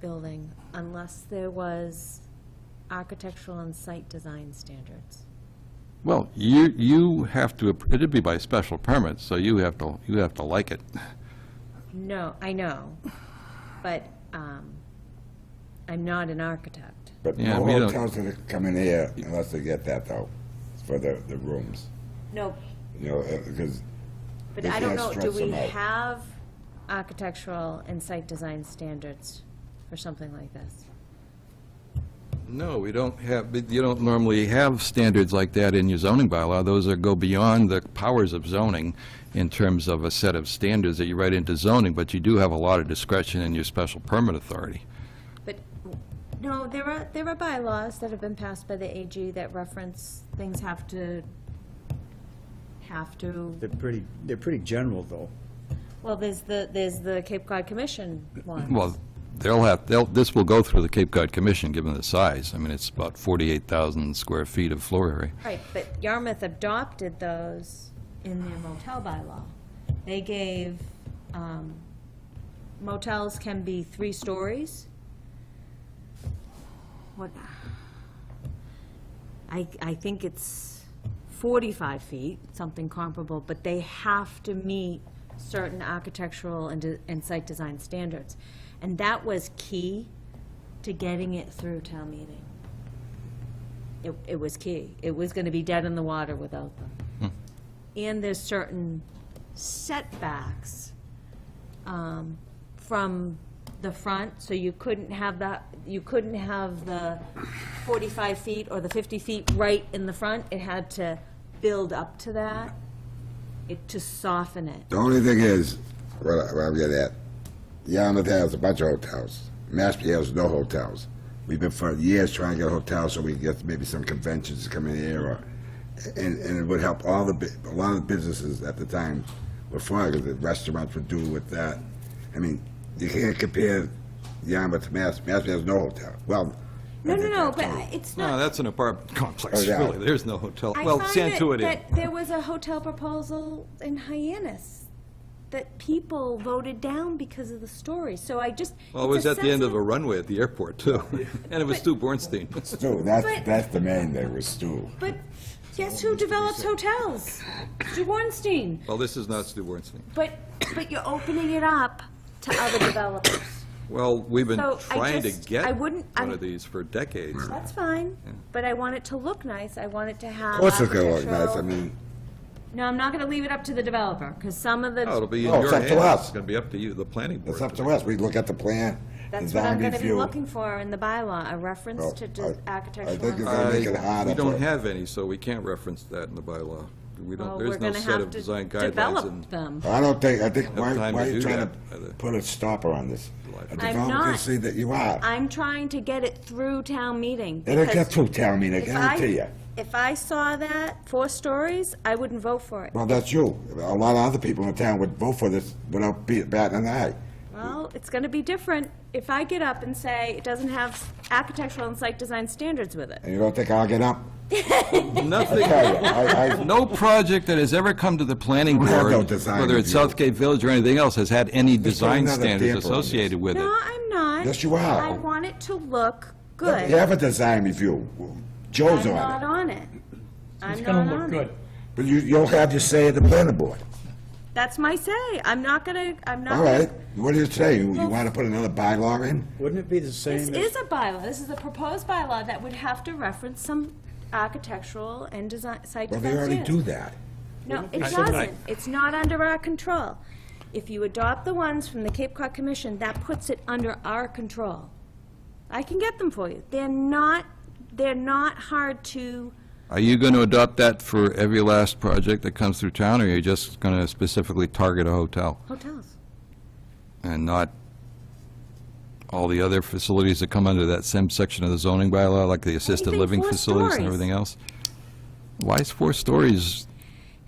building unless there was architectural and site design standards. Well, you, you have to, it'd be by special permit, so you have to, you have to like it. No, I know, but um, I'm not an architect. But Yeah, no we don't- hotels are coming here unless they get that though, for the, the rooms, No, you know, uh, because, but They I don't can't know, do stretch we them out. have architectural and site design standards for something like this? No, we don't have, you don't normally have standards like that in your zoning bylaw. Those are, go beyond the powers of zoning in terms of a set of standards that you write into zoning, but you do have a lot of discretion in your special permit authority. But, no, there are, there are bylaws that have been passed by the AG that reference things have to, have to, They're pretty, they're pretty general, though. well, there's the, there's the Cape Cod Commission one. Well, they'll have, they'll, this will go through the Cape Cod Commission, given the size. I mean, it's about 48,000 square feet of floor area. Right, but Yarmouth adopted those in their motel bylaw. They gave, um, motels can be three stories. What? I, I think it's forty-five feet, something comparable, but they have to meet certain architectural and, de- and site design standards. And that was key to getting it through town meeting it, it was key. It was going to be dead in the water without them. And there's certain setbacks um, from the front, so you couldn't have that, you couldn't have the 45 feet or the 50 feet right in the front. It had to build up to that, it, to soften it. the only thing is, what I- what I'm getting at, Yarmouth has a bunch of hotels. Mashpee has no hotels. We've been for years trying to get hotels so we can get maybe some conventions to come in here or, and, and it would help all the, bu- a lot of the businesses at the time were fine, because the restaurants would do with that. I mean, you can't compare Yarmouth to Mass, Mashpee has no hotel. Well. No, no, no, but hotel. it's No, not. that's an apartment complex, Oh, yeah. really. There's no hotel. I Well, find that- Santuit is. that There was a hotel proposal in Hyannis that people voted down because of the story, so I just. Well, it it's was a at the end of a sensitive- runway at the airport, too. And it was Stu Bornstein. Stu, that's, But- that's the main thing with Stu. But guess who develops hotels? Jawornstein. Well, this is not Stu Bornstein. But, but you're opening it up to other developers. Well, we've been So, I trying to just- get I wouldn't- one I'm- of these for decades. That's fine, but I want it to look nice, I want it to have. Of course it's gonna look nice, I architectural- mean, No, I'm not gonna leave it up to the developer, because some of the. No, it'll be in Oh, it's your up to hands. us. It's going to be up to you, the planning board. it's up to us, we look at the plan, That's what I'm design gonna be review. looking for in the bylaw, a reference Well, to I- I de- think architectural. it's and- gonna I- make it harder We for- don't have any, so we can't reference that in the bylaw. We Well, don't, we're there's no gonna set have of to design guidelines and develop them. I don't think, I think, why, time why to are you do trying that, either. to put a stopper on this? A developer not. can see that you are. I'm trying to get it through town meeting. It'll because get through town meeting, I if I- guarantee you. If I saw that, four stories, I wouldn't vote for it. Well, that's you. A lot of other people in town would vote for this without be- batting an eye. Well, it's gonna be different if I get up and say it doesn't have architectural and site design standards with it. And you don't think I'll get up? nothing. Tell you, I, I, No project that has ever come to the planning We have board, no design whether it's review. Southgate Village or anything else, has had any Let's put design another standards damper on this. associated with it. No, I'm not. Yes, you are. I want it to look you good. have a design review. Joe's I'm not on it. on it. I'm It's not on gonna look it. good. But you, you'll have your say at the planning board. That's my say. I'm not gonna, I'm not. All gonna- right, what do you say? You want to put another bylaw in? Wouldn't it be the This same is as, a bylaw. This is a proposed bylaw that would have to reference some architectural and design, site Well, design they already standards. do that. No, it doesn't. It's not under our control. If you adopt the ones from the Cape Cod Commission, that puts it under our control. I can get them for you. They're not, they're not hard to, Are you going to adopt that for every last project that comes through town, or are you just going to specifically target a hotel hotels. and not all the other facilities that come under that same section of the zoning bylaw, like the assisted Anything living four facilities and stories. everything else? Why is four stories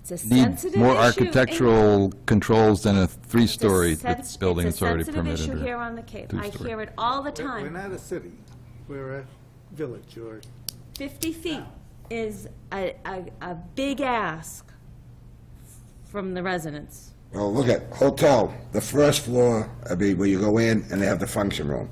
It's a need sensitive issue. more It's architectural controls than a a three-story sens- that's building that's already It's a sensitive permitted? issue or- here on the Cape. I two-story. hear it all the We're- We're time. not a city, we're a village or 50 feet is a, a, a big ask from the residents. Well, look at hotel, the first floor, I mean, where you go in and they have the function room.